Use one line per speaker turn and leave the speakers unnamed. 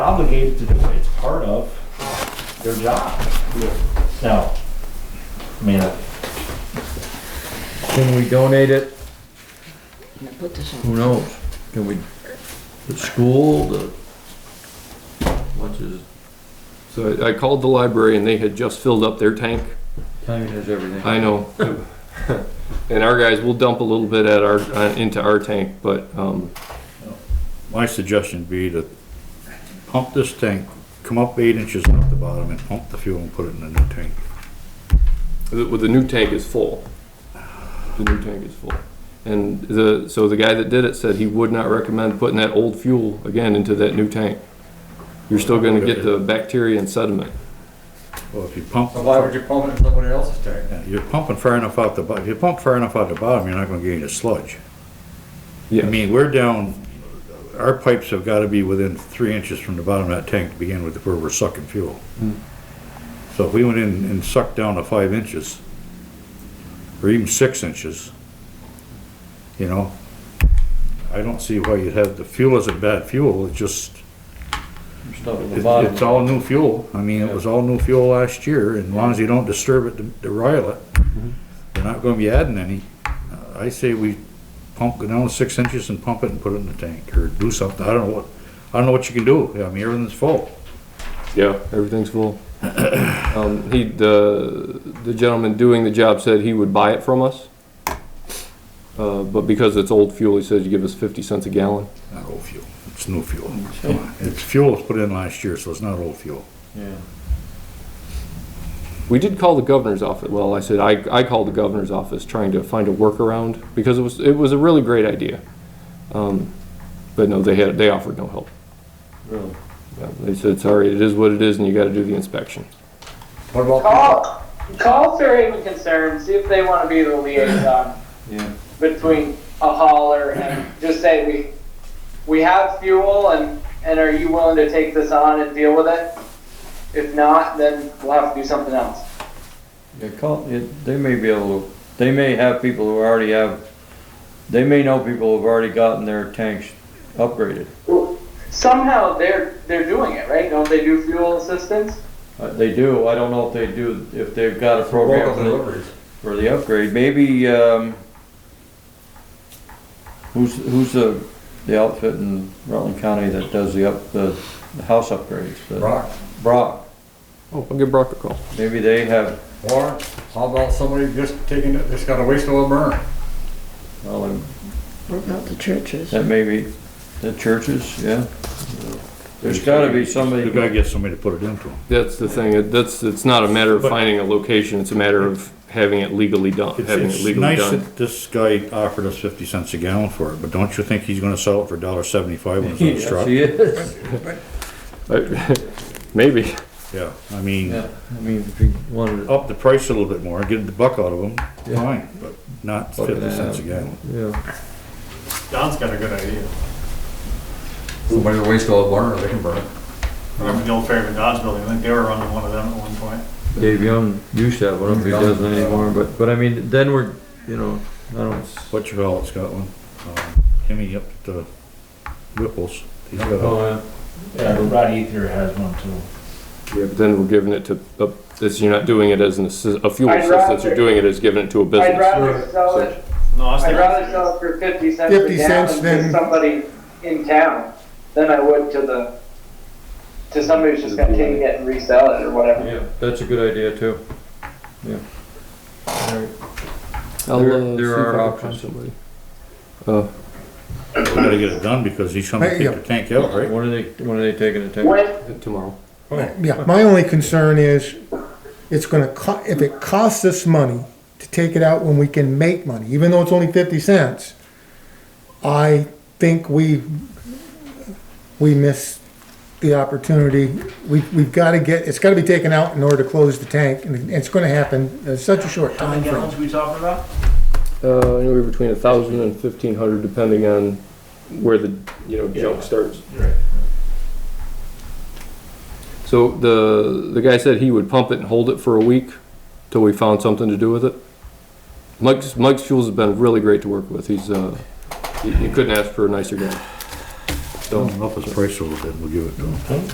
obligated to do it. It's part of their job. Now, I mean, uh,
Can we donate it?
I'm gonna put this on.
Who knows? Can we, the school, the, what's his,
So I- I called the library and they had just filled up their tank.
timing is everything.
I know. And our guys will dump a little bit at our, uh, into our tank, but, um,
My suggestion would be to pump this tank, come up eight inches off the bottom and pump the fuel and put it in a new tank.
the, the new tank is full. The new tank is full. And the, so the guy that did it said he would not recommend putting that old fuel again into that new tank. You're still gonna get the bacteria and sediment.
Well, if you pump,
So why would you pump it in somebody else's tank?
you're pumping far enough out the, bo- if you pump far enough out the bottom, you're not gonna get any sludge. I
Yeah,
mean, we're down, our pipes have gotta be within three inches from the bottom of that tank to begin with, where we're sucking fuel. So if we went in and sucked down to five inches, or even six inches, you know, I don't see why you'd have, the fuel isn't bad fuel, it just,
Stuff at the
It's
bottom.
it's all new fuel. I mean, it was all new fuel last year, and as long as you don't disturb it, to- to rile it,
Mm-hmm.
we're not gonna be adding any. Uh, I say we pump it down six inches and pump it and put it in the tank, or do something. I don't know what, I don't know what you can do. I mean, everything's full.
yeah, everything's full. Um, he, the, the gentleman doing the job said he would buy it from us. Uh, but because it's old fuel, he says you give us fifty cents a gallon.
Not old fuel, it's new fuel. Come on. It's fuel that's put in last year, so it's not old fuel.
Yeah.
We did call the governor's office. Well, I said I, I called the governor's office trying to find a workaround because it was it was a really great idea, um, but no, they had they offered no help.
Really?
Yeah, They said sorry, it is what it is, and you got to do the inspection.
What about,
Call, call Fairhaven Concern, see if they want to be the liaison
Yeah.
between a hauler and just say, we, we have fuel and, and are you willing to take this on and deal with it? If not, then we'll have to do something else.
Yeah, call, it, they may be able to, they may have people who already have, they may know people who've already gotten their tanks upgraded.
Somehow they're, they're doing it, right? Don't they do fuel assistance?
Uh, they do, I don't know if they do, if they've got a program
local
for the,
deliveries?
for the upgrade, maybe, um, who's, who's the, the outfit in Rutland County that does the up, the, the house upgrades? The-
Rock,
Brock.
Oh, I'll give Brock a call.
Maybe they have,
or how about somebody just taking it, just got a waste oil burn?
well,
What about the churches?
that may be, the churches, yeah. There's gotta be somebody,
You gotta get somebody to put it into 'em.
That's the thing. It, that's it's not a matter of
But-
finding a location. It's a matter of having it legally done.
It's,
having
it's
it legally
nice
done.
that this guy offered us fifty cents a gallon for it, but don't you think he's gonna sell it for a dollar seventy-five when it's on his
yes,
truck?
he is,
I- Maybe.
Yeah, I mean.
yeah, I mean, if you wanted,
up the price a little bit more, get the buck out of them,
Yeah.
fine, but not
Buck and a
fifty cents a
half.
gallon.
yeah,
Don's got a good idea.
Somebody with a waste oil burner, they can burn it.
I remember the old Fairhaven Dodge building, I think they were running one of them at one point.
Dave Young used to have one, I don't know if he doesn't anymore, but, but I mean, then we're, you know, I don't,
What you call it, Scotland? Timmy Um, up at the Whipples, he's got a,
oh,
yeah, Rod Ether has one too.
Yeah, but then we're giving it to. Uh, this, you're not doing it as an assi- a fuel
I'd
assistance. You're
rather-
doing it as giving it to a business.
I'd rather sell
so-
it,
No, I was
I'd
thinking.
rather sell it for fifty cents a
50 cents
gallon to
than-
somebody in town than I would to the, to somebody who's just gonna take it and resell it or
yeah,
whatever.
yeah, that's a good idea too, yeah. All right.
I'll,
There-
uh,
there
see if
are
I can find
options.
somebody.
we gotta get it done because he's coming to
Hey,
take the tank out, right?
When are they, when are they taking the tank?
When,
Uh, Tomorrow.
Yeah, my only concern is, it's gonna co, if it costs us money to take it out when we can make money, even though it's only fifty cents, I think we, we miss the opportunity. We, we've gotta get, it's gotta be taken out in order to close the tank, and it's gonna happen in such a short
How
time
many
frame.
gallons we talking about?
Uh, anywhere between a thousand and fifteen hundred, depending on where the, you know, junk starts.
Right.
So the, the guy said he would pump it and hold it for a week till we found something to do with it. Mike's, Mike's Fuels has been really great to work with. He's, uh, you you couldn't ask for a nicer guy.
Don't up his price a little bit, we'll give it to him.